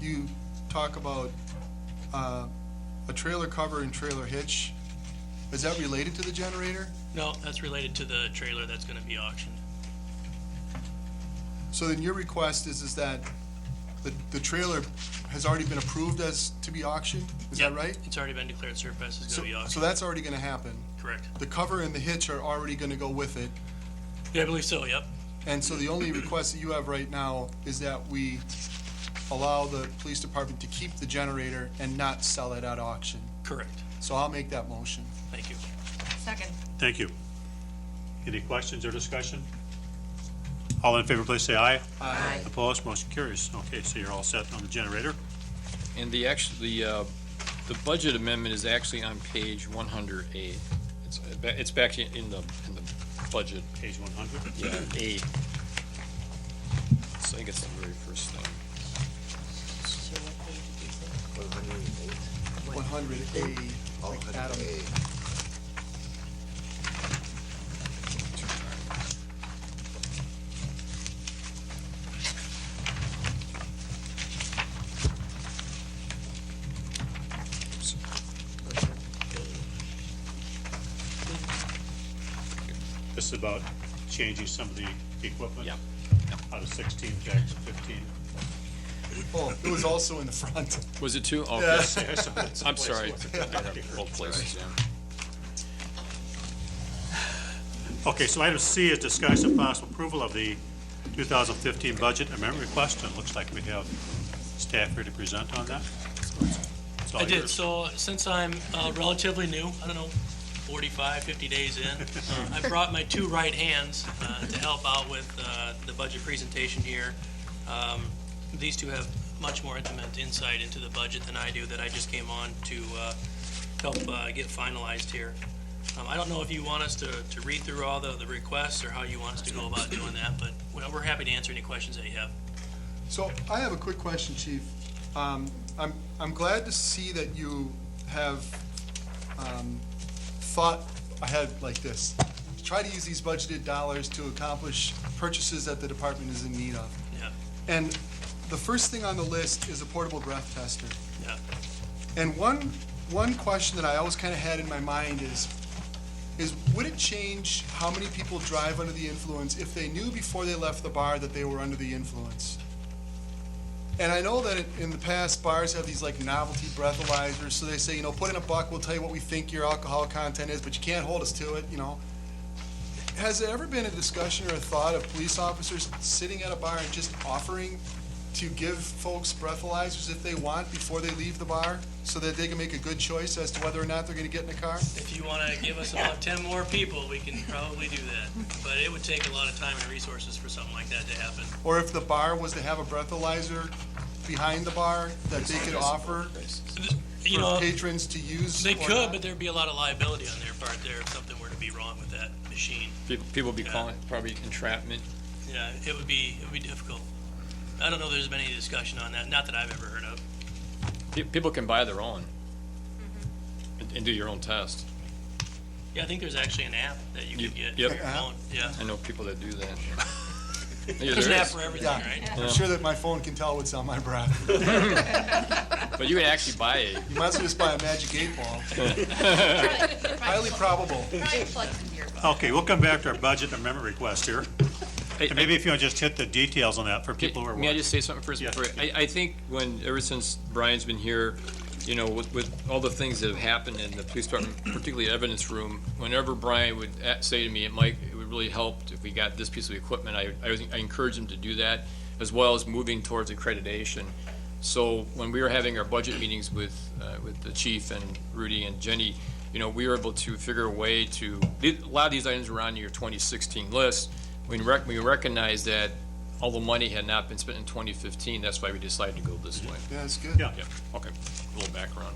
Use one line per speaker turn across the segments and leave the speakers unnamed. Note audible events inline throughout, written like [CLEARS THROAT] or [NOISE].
you talk about uh, a trailer cover and trailer hitch, is that related to the generator?
No, that's related to the trailer that's gonna be auctioned.
So then your request is, is that the, the trailer has already been approved as to be auctioned? Is that
Yep,
right?
It's already been declared surplus, it's
So,
gonna be
so
auctioned,
that's already gonna happen.
correct?
The cover and the hitch are already gonna go with it.
Yeah, I believe so, yep.
And so the
[CLEARS THROAT]
only request that you have right now is that we allow the police department to keep the generator and not sell it at auction.
Correct,
So I'll make that motion.
thank you.
Second.
Thank you. Any questions or discussion? All in favor, please say aye.
Aye.
Opposed, motion carries. Okay, so you're all set on the generator.
And the actual, the, uh, the budget amendment is actually on page one hundred eight. It's, it's back in in the, in the budget,
Page 100.
yeah, eight. So I think it's the very first thing.
One hundred A, like Adam.
This is about changing some of the equipment.
Yeah.
Out of 16 jacks to 15.
Oh, it was also in the front. [LAUGHS]
Was it two? Oh,
Yeah.
yes. I'm
I'm
sorry. Both places, yeah.
Okay, so item C is discussion of possible approval of the 2015 budget amendment request, and it looks like we have staff here to present on that. It's all
I did,
yours.
so since I'm uh, relatively new, I don't know, 45, 50 days in, uh, I brought my two right hands uh, to help out with uh, the budget presentation here. Um, These two have much more intimate insight into the budget than I do, that I just came on to uh, help uh, get finalized here. Um, I don't know if you want us to to read through all the the requests, or how you want us to go about doing that, but we're we're happy to answer any questions that you have.
So I have a quick question, Chief. Um, I'm, I'm glad to see that you have, um, thought ahead like this. Try to use these budgeted dollars to accomplish purchases that the department is in need of.
Yeah,
And the first thing on the list is a portable breath tester.
yeah.
And one, one question that I always kind of had in my mind is, is would it change how many people drive under the influence if they knew before they left the bar that they were under the influence? And I know that in the past, bars have these like novelty breathalyzers, so they say, you know, put in a buck, we'll tell you what we think your alcohol content is, but you can't hold us to it, you know? Has there ever been a discussion or a thought of police officers sitting at a bar and just offering to give folks breathalyzers if they want before they leave the bar, so that they can make a good choice as to whether or not they're gonna get in a car?
If you want to give us about 10 more people, we can probably do that. But it would take a lot of time and resources for something like that to happen.
Or if the bar was to have a breathalyzer behind the bar that they could offer
You
for
know,
patrons to use?
they
or
could,
not?
but there'd be a lot of liability on their part there if something were to be wrong with that machine.
People, people be calling it probably entrapment.
Yeah, it would be, it would be difficult. I don't know if there's been any discussion on that, not that I've ever heard of.
Pe- People can buy their own and, and do your own test.
Yeah, I think there's actually an app that you could
Yep.
get. for your
Yep.
phone. Yeah.
I know people that do [LAUGHS] that. Yeah,
There's an
there
app
is.
for everything,
Yeah,
right?
I'm sure that my phone can tell what's on my breath.
But you can actually buy a,
You might as well just buy a magic eight ball. Highly
Highly
probable.
Probably plugs in your.
Okay, we'll come back to our budget amendment request here.
Hey,
And maybe if you want to just hit the details on that for people who are
May I
watching.
just say something first?
Yeah.
before I, I think when, ever since Brian's been here, you know, with, with all the things that have happened in the police department, [CLEARS THROAT] particularly evidence room, whenever Brian would a- say to me, Mike, it would really help if we got this piece of equipment, I, I was- I encourage him to do that, as well as moving towards accreditation. So when we were having our budget meetings with, uh, with the chief and Rudy and Jenny, you know, we were able to figure a way to, a lot of these items were on your 2016 list. We rec, we recognize that all the money had not been spent in 2015, that's why we decided to go this way.
Yeah, that's good.
Yeah.
Yeah, okay, a little background.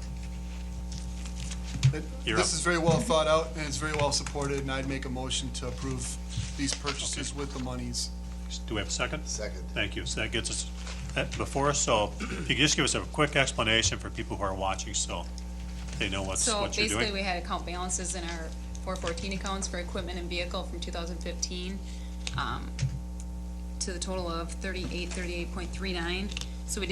It-
You're
This
up.
is very well thought out and it's very well supported, and I'd make a motion to approve these purchases with the monies.
Do we have a second?
Second.
Thank you. So that gets us that before us, so if you could just give us a quick explanation for people who are watching, so they know what's,
So
what you're
basically,
doing.
we had account balances in our four fourteen accounts for equipment and vehicle from two thousand fifteen, um, to the total of thirty-eight, thirty-eight point three nine.